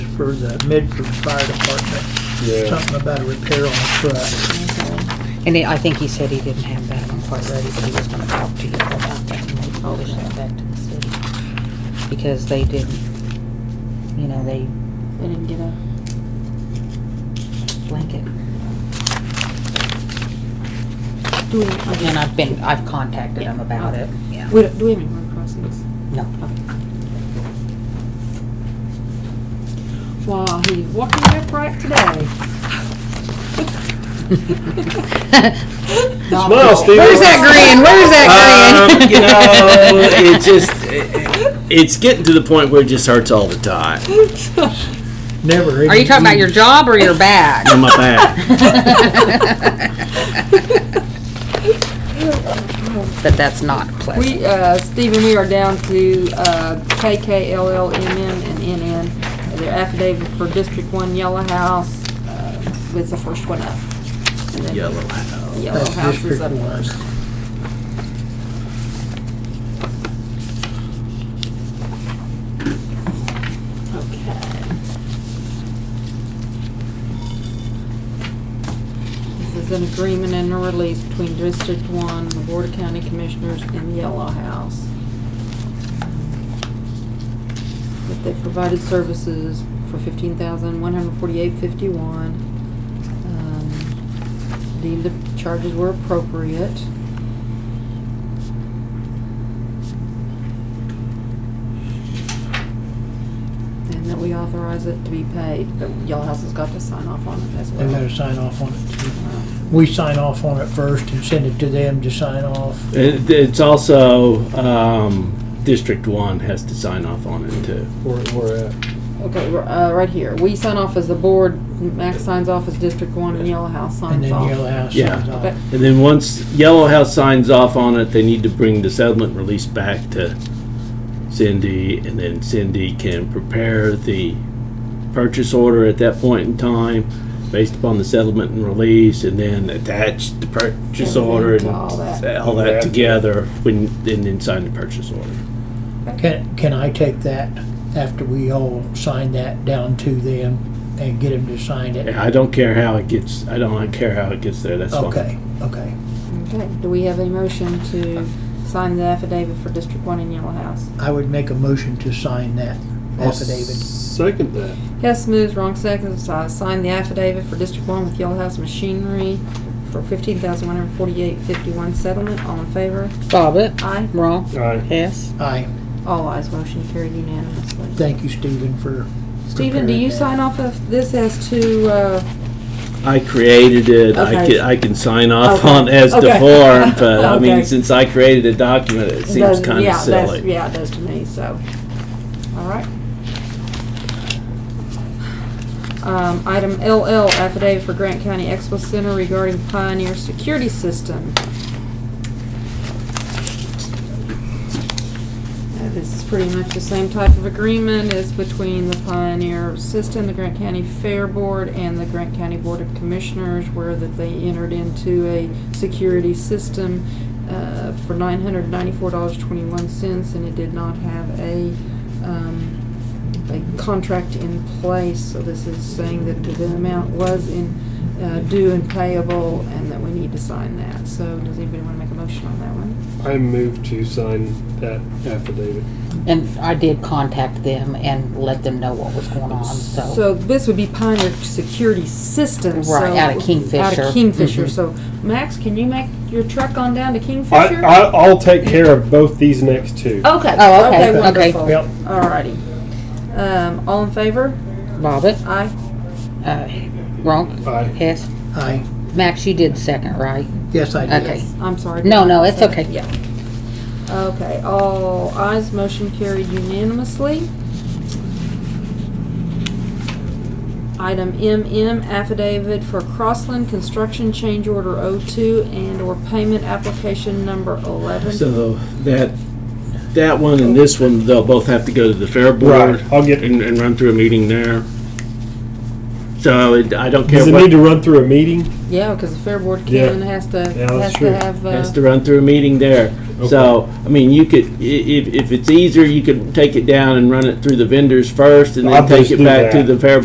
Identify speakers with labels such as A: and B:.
A: for the Midford Fire Department.
B: Yeah.
A: Something about a repair on a truck.
C: And I think he said he didn't have that one quite ready, but he was gonna talk to you about that and they probably sent back to the city. Because they didn't, you know, they
D: They didn't get a.
C: blanket.
D: Do we, okay.
C: And I've been, I've contacted them about it, yeah.
D: we don't- do we have any road crossings?
C: No.
D: Wow, he's walking upright today.
B: Smile, Steve.
C: Where's that grin? Where's that
B: Um,
C: grin?
B: you know, it just, it- it's getting to the point where it just hurts all the time
A: Never.
C: Are you talking about your job or your bag?
B: in my back.
C: But that's not pleasant.
D: We, uh, Stephen, we are down to, uh, KKLLMN and NN, their affidavit for District One Yellow House, uh, was the first one up. And then
B: Yellow house.
D: Yellow
A: That's
D: House is
A: District
D: up
A: One.
D: first. Okay. This is an agreement and a release between District One, the Board of County Commissioners, and Yellow House. That they provided services for fifteen thousand one hundred forty-eight fifty-one. Deemed the charges were appropriate. And that we authorize it to be paid, but Yellow House has got to sign off on it as well.
A: They gotta sign off on it. too. We sign off on it first and send it to them to sign off.
B: It, it's also, um, District One has to sign off on it too.
E: Where, where at?
D: Okay, r- uh, right here. We sign off as the board, Max signs off as District One, and Yellow
A: And
D: House signs
A: then Yellow
D: off.
A: House
B: Yeah.
A: signs
D: Okay.
A: off.
B: And then once Yellow House signs off on it, they need to bring the settlement release back to Cindy, and then Cindy can prepare the purchase order at that point in time, based upon the settlement and release, and then attach the purchase
D: Everything,
B: order and
D: all that.
B: all
E: Yeah.
B: that together, when, and then sign the purchase order.
A: Can, can I take that after we all sign that down to them and get them to sign it?
B: And I don't care how it gets, I don't care how it gets there, that's fine.
A: Okay, okay.
D: Okay, do we have a motion to sign the affidavit for District One and Yellow House?
A: I would make a motion to sign that affidavit.
E: Second that.
D: Hess moves, wrong seconds. I sign the affidavit for District One with Yellow House Machinery for fifteen thousand one hundred forty-eight fifty-one settlement. All in favor?
C: Bobbit,
D: Aye.
C: wrong,
E: Aye.
C: yes.
A: Aye,
D: All ayes. Motion carried unanimously.
A: thank you, Stephen, for.
D: Stephen, do you
A: preparing
D: sign off of this as to, uh,
B: I created it, I
D: Okay.
B: can, I can sign off
D: Okay.
B: on as the
D: Okay.
B: form, but I
D: Okay.
B: mean, since I created a document, it seems
D: does-
B: kinda
D: yeah, that's-
B: silly.
D: Yeah, it does to me, so, all right. Um, item LL, affidavit for Grant County Expo Center regarding Pioneer Security System. Uh, This is pretty much the same type of agreement as between the Pioneer System, the Grant County Fair Board, and the Grant County Board of Commissioners, where that they entered into a security system uh, for nine hundred ninety-four dollars twenty-one cents, and it did not have a, um, a contract in place, so this is saying that the amount was in, uh, due and payable, and that we need to sign that. So does anybody want to make a motion on that one?
E: I move to sign that affidavit.
C: And I did contact them and let them know what was going on, so.
D: So this would be Pioneer Security Systems. so-
C: Right, out of Kingfisher.
D: Out of Kingfisher,
C: Mhm.
D: so Max, can you make your truck on down to
E: I,
D: Kingfisher?
E: I, I'll take care of both these next two.
D: Okay.
C: Oh, okay, okay.
D: Wonderful.
A: Yep.
D: Alrighty. Um, all in favor?
C: Bobbit,
D: Aye.
C: uh, wrong,
E: Aye.
C: yes.
A: that. Aye,
C: Max, you did second, right?
A: yes, I did.
C: Okay.
D: Yes, I'm sorry.
C: No, no, it's okay.
D: Yeah. Okay, all ayes, motion carried unanimously. Item MM, affidavit for Crossland Construction Change Order 02 and/or payment application number 11.
B: So that, that one and this one, they'll both have to go to the fair board.
E: Right, I'll get-
B: And, and run through a meeting there. So it, I don't care
E: Does it
B: what,
E: need to run through a meeting?
D: Yeah, because the fair board
E: Yeah.
D: can, has to,
E: Yeah, that's
D: has
E: true.
D: to have, uh,
B: has to run through a meeting there. So, I mean, you could, i- if, if it's easier, you could take it down and run it through the vendors first and
E: I'll
B: then take
E: just
B: it
E: do
B: back to
E: that.
B: the fair